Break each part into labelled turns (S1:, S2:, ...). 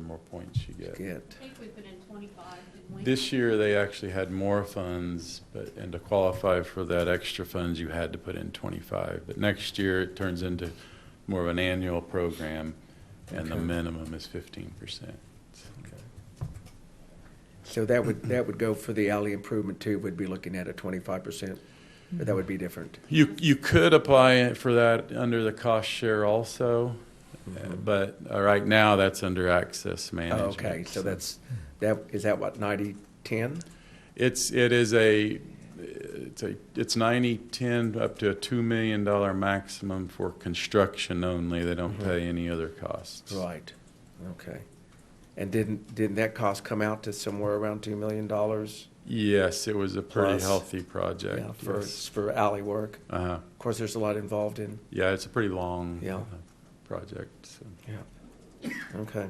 S1: more points you get.
S2: Good.
S3: I think we put in twenty-five, didn't we?
S1: This year, they actually had more funds, but, and to qualify for that extra funds, you had to put in 25. But next year, it turns into more of an annual program, and the
S2: Okay.
S1: minimum is 15%.
S2: So that would, that would go for the alley improvement too, would be looking at a twenty-five percent, but that would be different.
S1: You, you could apply it for that under the cost share also, uh, but uh, right now, that's under access
S2: Mm-hmm. Oh,
S1: management.
S2: Okay, so that's, that, is that what, ninety, ten?
S1: It's, it is a, it's a, it's ninety, ten, up to a two million dollar maximum for construction only. They don't pay any other costs.
S2: Mm-hmm. Right, okay. And didn't, didn't that cost come out to somewhere around two million dollars?
S1: Yes, it was a pretty
S2: Plus.
S1: healthy project.
S2: Yeah, for,
S1: yes.
S2: for alley work.
S1: Uh-huh.
S2: Of course, there's a lot involved in,
S1: Yeah, it's a pretty long.
S2: Yeah.
S1: uh, Project, so.
S2: yeah, okay.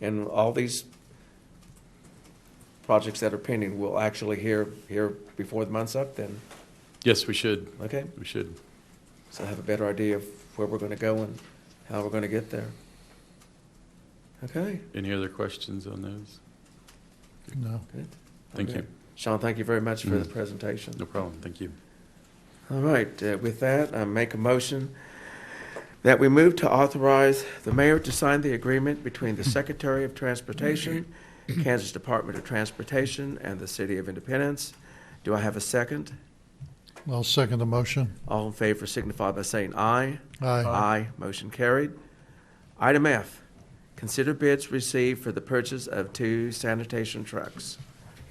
S2: And all these projects that are pending, we'll actually hear, hear before the month's up then,
S1: Yes, we should,
S2: okay?
S1: we should.
S2: So I have a better idea of where we're gonna go and how we're gonna get there. Okay,
S1: Any other questions on those?
S4: No.
S2: good.
S1: Thank
S2: Okay.
S1: you.
S2: Sean, thank you very much for the
S1: Mhm.
S2: presentation.
S1: No problem, thank you.
S2: All right, uh, with that, I make a motion that we move to authorize the mayor to sign the agreement between the Secretary of Transportation, Kansas Department of Transportation, and the City of Independence. Do I have a second?
S4: I'll second the motion.
S2: All in favor signify by saying aye.
S4: Aye.
S2: Aye. Motion carried. Item F, consider bids received for the purchase of two sanitation trucks.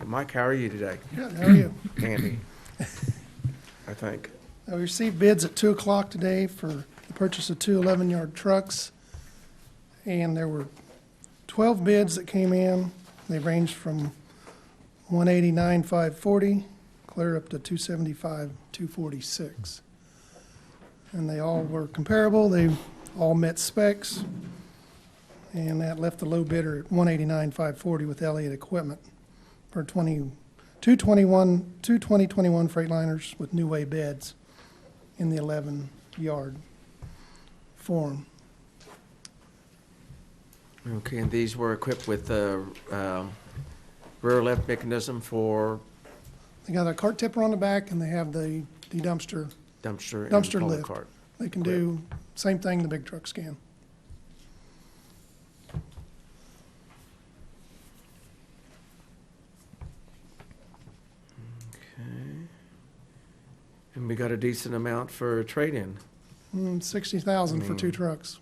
S2: Mike, how are you today?
S4: Good, how are you?
S2: Andy, I think.
S4: I received bids at two o'clock today for the purchase of two eleven-yard trucks. And there were twelve bids that came in. They ranged from one eighty-nine, five forty, clear up to two seventy-five, two forty-six. And they all were comparable. They all met specs. And that left the low bidder at one eighty-nine, five forty with Elliott Equipment for twenty, two twenty-one, two twenty twenty-one Freightliners with new way beds in the 11-yard form.
S2: Okay, and these were equipped with a um, rear lift mechanism for
S4: They got a cart tipper on the back, and they have the the dumpster.
S2: dumpster and
S4: Dumpster
S2: pull
S4: lift.
S2: cart.
S4: They can do same thing the big trucks can.
S2: And we got a decent amount for trade-in,
S4: Mm, 60,000 for
S2: Mm.
S4: two trucks.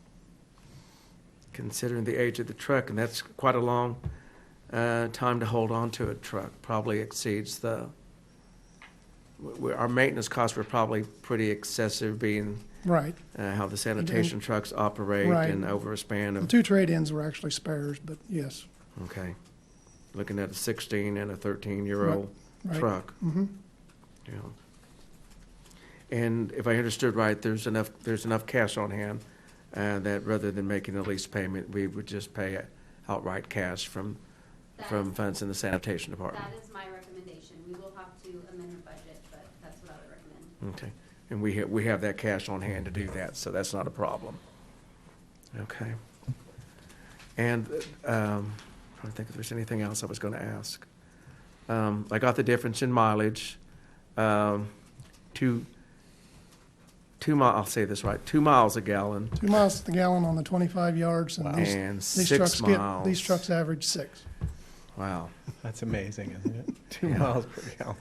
S2: considering the age of the truck, and that's quite a long uh, time to hold on to a truck. Probably exceeds the, w- w- our maintenance costs were probably pretty excessive, being
S4: Right.
S2: uh, how the sanitation trucks operate
S4: Mm-hmm. Right.
S2: and over a span
S4: The
S2: of,
S4: two trade-ins were actually spares, but yes.
S2: okay. Looking at a 16 and a 13-year-old
S4: Right.
S2: truck.
S4: hmm
S2: Yeah. And if I understood right, there's enough, there's enough cash on hand uh, that rather than making a lease payment, we would just pay outright cash from,
S5: That
S2: from
S5: is-
S2: funds in the sanitation department.
S5: That is my recommendation. We will have to amend our budget, but that's what I would recommend.
S2: Okay. And we, ha- we have that cash on hand to do that, so that's not a problem. Okay. And um, trying to think if there's anything else I was going to ask. Um, I got the difference in mileage. Um, two, two mi- I'll say this right, two miles a gallon.
S4: Two miles to the gallon on the 25 yards, and these,
S2: And
S4: these
S2: six
S4: trucks get,
S2: miles.
S4: these trucks average six.
S2: Wow.
S6: That's amazing, isn't it? Two
S2: Yeah.
S6: miles per gallon.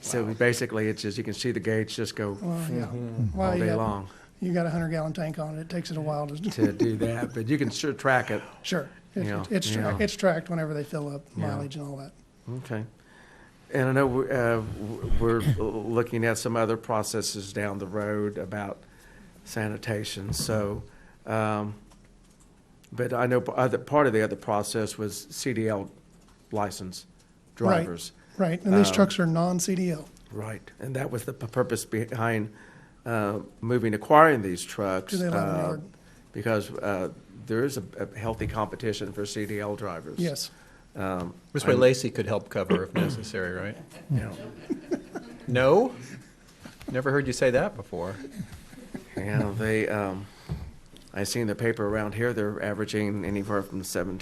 S2: So basically, it's just you can see the gauge just go
S4: Well, yeah. Well,
S2: all
S4: you
S2: day
S4: got-
S2: long
S4: You got a 100-gallon tank on it. It takes it a while to,
S2: to do that, but you can sure track it.
S4: sure. It-
S2: Yeah,
S4: It's, tra-
S2: yeah.
S4: it's tracked whenever they fill up
S2: Yeah.
S4: mileage and all that.
S2: Okay. And I know we're, uh, we're looking at some other processes down the road about sanitation, so, um, but I know p- other, part of the other process was CDL license
S4: Right.
S2: drivers.
S4: Right, and these
S2: Um,
S4: trucks are non-CDL.
S2: Right. And that was the p- purpose behind uh, moving, acquiring these trucks.
S4: Do they allow them
S2: uh,
S4: yard?
S2: Because uh, there is a a healthy competition for CDL drivers.
S4: Yes,
S6: This way Lacey could help cover if necessary, right?
S2: Yeah.
S6: No? Never heard you say that before.
S2: Yeah, they, um, I seen the paper around here, they're averaging anywhere from seven